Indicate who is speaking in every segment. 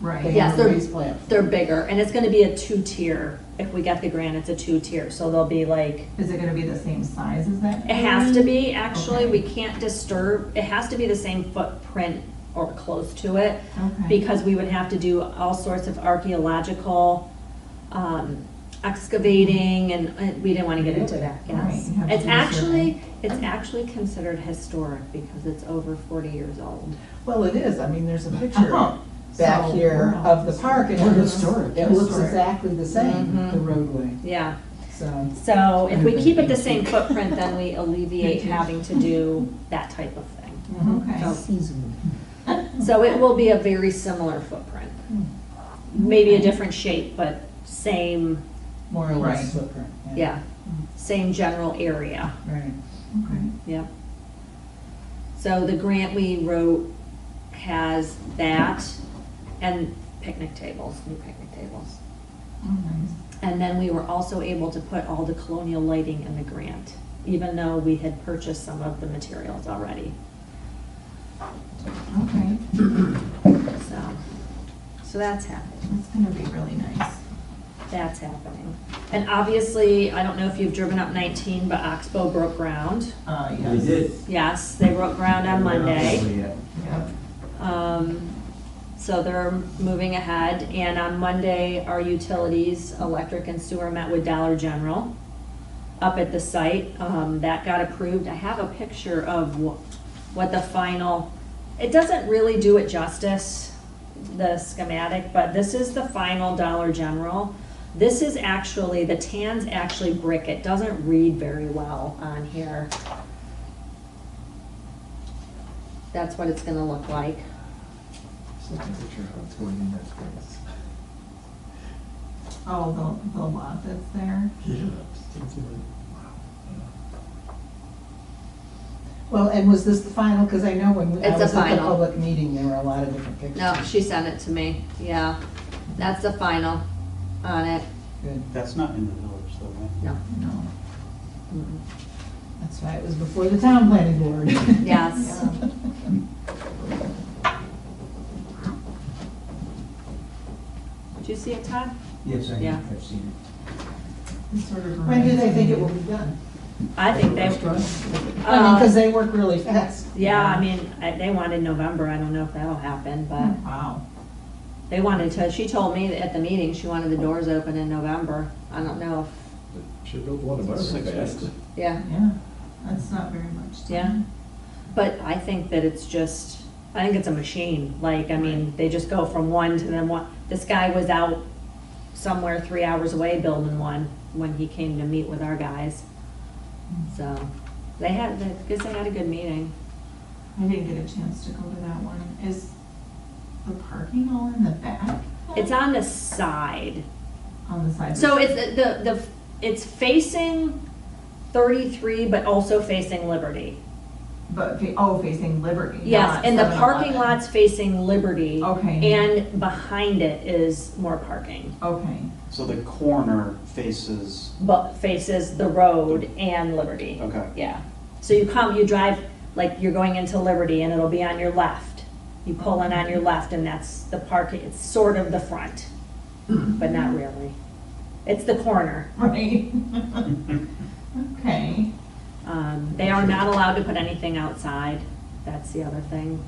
Speaker 1: Right.
Speaker 2: Yes, they're-
Speaker 3: These plants.
Speaker 2: They're bigger, and it's gonna be a two-tier. If we get the grant, it's a two-tier, so they'll be like,
Speaker 1: Is it gonna be the same size as that?
Speaker 2: it has to
Speaker 1: Mm.
Speaker 2: be, actually, we can't disturb, it has to be the same footprint or close to it.
Speaker 1: Okay.
Speaker 2: because we would have to do all sorts of archaeological um, excavating, and uh, we didn't want to get into that,
Speaker 1: Right,
Speaker 2: yes.
Speaker 1: you have to
Speaker 2: It's
Speaker 1: do a
Speaker 2: actually, it's actually considered historic because it's over 40 years old.
Speaker 3: Well, it is, I mean, there's a
Speaker 1: Uh-huh.
Speaker 3: picture back
Speaker 1: So,
Speaker 3: here
Speaker 1: wow.
Speaker 3: of the park. and
Speaker 4: We're
Speaker 3: it looks-
Speaker 4: historic.
Speaker 3: It looks
Speaker 1: Historic.
Speaker 3: exactly the same,
Speaker 2: Mhm.
Speaker 1: Mm-hmm.
Speaker 3: the roadway,
Speaker 2: Yeah,
Speaker 3: so.
Speaker 2: so if we
Speaker 4: Kinda
Speaker 2: keep it the
Speaker 4: vintage.
Speaker 2: same footprint, then we alleviate
Speaker 1: Vintage.
Speaker 2: having to do that type of thing.
Speaker 3: mhm.
Speaker 1: Mm-hmm. Okay.
Speaker 4: Seasonal.
Speaker 2: So it will be a very similar footprint. Maybe a different shape, but same,
Speaker 3: More or less
Speaker 1: Right.
Speaker 3: footprint.
Speaker 2: yeah, same general area.
Speaker 3: Right.
Speaker 1: Okay.
Speaker 2: Yep. So the grant we wrote has that and picnic tables, new picnic tables.
Speaker 1: Oh, nice.
Speaker 2: And then we were also able to put all the colonial lighting in the grant, even though we had purchased some of the materials already,
Speaker 1: Okay,
Speaker 2: so. So that's happening,
Speaker 1: that's gonna be really nice.
Speaker 2: that's happening. And obviously, I don't know if you've driven up 19, but Oxbow broke ground.
Speaker 3: Uh,
Speaker 4: We
Speaker 3: yes.
Speaker 4: did.
Speaker 2: Yes, they broke ground on Monday.
Speaker 3: Yep.
Speaker 2: Um, So they're moving ahead, and on Monday, our utilities, electric and sewer met with Dollar General up at the site. Um, That got approved. I have a picture of wh- what the final, it doesn't really do it justice, the schematic, but this is the final Dollar General. This is actually, the tan's actually brick. It doesn't read very well on here. That's what it's gonna look like.
Speaker 4: Just look at the picture of how it's going in that space.
Speaker 1: Oh, the, the lot that's there.
Speaker 4: Yeah. Just think through it. Wow.
Speaker 3: Well, and was this the final, because I know when we- I
Speaker 2: It's the
Speaker 3: was at the
Speaker 2: final.
Speaker 3: public meeting, there were a lot of different pictures.
Speaker 2: No, she sent it to me, yeah. That's the final on it,
Speaker 3: Good.
Speaker 5: That's not in the village, though, right?
Speaker 2: no.
Speaker 3: No,
Speaker 2: Mm-mm.
Speaker 3: that's why it was before the town planning board.
Speaker 2: Yes. Did you see it, Todd?
Speaker 4: Yes, I
Speaker 2: Yeah.
Speaker 4: have seen
Speaker 1: It's sort of.
Speaker 3: When do they
Speaker 1: reminds
Speaker 3: think
Speaker 1: me-
Speaker 3: it will be done?
Speaker 2: I think they,
Speaker 3: I mean, because
Speaker 2: uh,
Speaker 3: they work really fast.
Speaker 2: yeah, I mean, I- they wanted November, I don't know if that'll happen, but
Speaker 1: Oh, Wow.
Speaker 2: they wanted to, she told me at the meeting, she wanted the doors open in November. I don't know,
Speaker 4: it. Should build one of
Speaker 5: It's
Speaker 4: ours
Speaker 5: six
Speaker 4: fast.
Speaker 5: weeks.
Speaker 2: if yeah.
Speaker 1: Yeah, that's not very much. time.
Speaker 2: Yeah. But I think that it's just, I think it's a machine, like, I mean, they just go from one to then one. This guy was out somewhere three hours away building one when he came to meet with our guys. So, they had, I guess they had a good meeting.
Speaker 1: I didn't get a chance to go to that one. Is the parking all in the back?
Speaker 2: It's on the side,
Speaker 1: On the side.
Speaker 2: so it's, the, the, it's facing thirty-three, but also facing Liberty.
Speaker 1: But, fa- oh, facing Liberty.
Speaker 2: Yes,
Speaker 1: not
Speaker 2: and the parking
Speaker 1: 7-Eleven.
Speaker 2: lot's facing Liberty.
Speaker 1: Okay.
Speaker 2: And behind it is more parking.
Speaker 1: Okay,
Speaker 5: So the corner faces,
Speaker 2: but faces the road and Liberty.
Speaker 5: Okay.
Speaker 2: Yeah. So you come, you drive, like you're going into Liberty and it'll be on your left. You pull in on your left and that's the park, it's sort of the front, but not really. It's the corner.
Speaker 1: right. Okay.
Speaker 2: Um, they are not allowed to put anything outside. That's the other thing.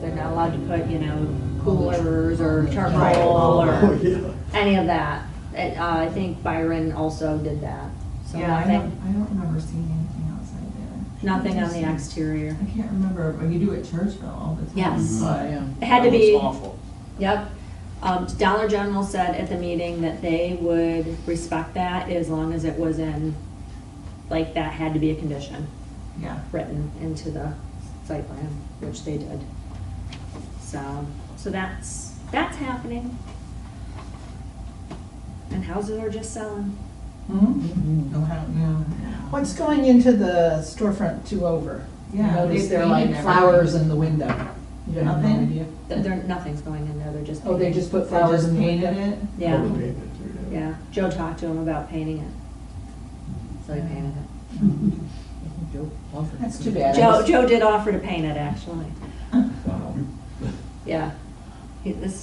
Speaker 2: They're not allowed to put, you know, coolers or charcoal
Speaker 4: Oh,
Speaker 2: or
Speaker 4: yeah.
Speaker 2: any of that. It, uh, I think Byron also did that. So
Speaker 1: Yeah, I
Speaker 2: nothing-
Speaker 1: don't, I don't remember seeing anything outside there.
Speaker 2: Nothing on the
Speaker 1: Interesting.
Speaker 2: exterior.
Speaker 1: I can't remember, but you do at Churchville all the time.
Speaker 2: Yes.
Speaker 3: Oh,
Speaker 1: but-
Speaker 2: It had to
Speaker 5: That looks
Speaker 2: be,
Speaker 5: awful.
Speaker 2: yep. Um, Dollar General said at the meeting that they would respect that as long as it was in, like, that had to be a condition
Speaker 1: Yeah.
Speaker 2: written into the site plan, which they did. So, so that's, that's happening. And houses are just selling. Mm-hmm.
Speaker 3: Mhm.
Speaker 1: No, how, no.
Speaker 3: What's going into the storefront to over?
Speaker 1: Yeah,
Speaker 3: I Notice
Speaker 1: they've
Speaker 3: there are like
Speaker 1: painted
Speaker 3: flowers in the window. You don't have no
Speaker 1: Nothing?
Speaker 3: idea?
Speaker 2: Th- There, nothing's going in there, they're just.
Speaker 3: Oh, they
Speaker 2: painting.
Speaker 3: just put
Speaker 1: They
Speaker 3: flowers
Speaker 1: just
Speaker 3: in the window?
Speaker 1: painted it?
Speaker 2: Yeah,
Speaker 4: Probably made it through there.
Speaker 2: yeah. Joe talked to him about painting it. So he painted it.
Speaker 3: That's too bad. I
Speaker 2: Joe,
Speaker 3: just-
Speaker 2: Joe did offer to paint it, actually.
Speaker 4: Wow.
Speaker 2: Yeah. He- This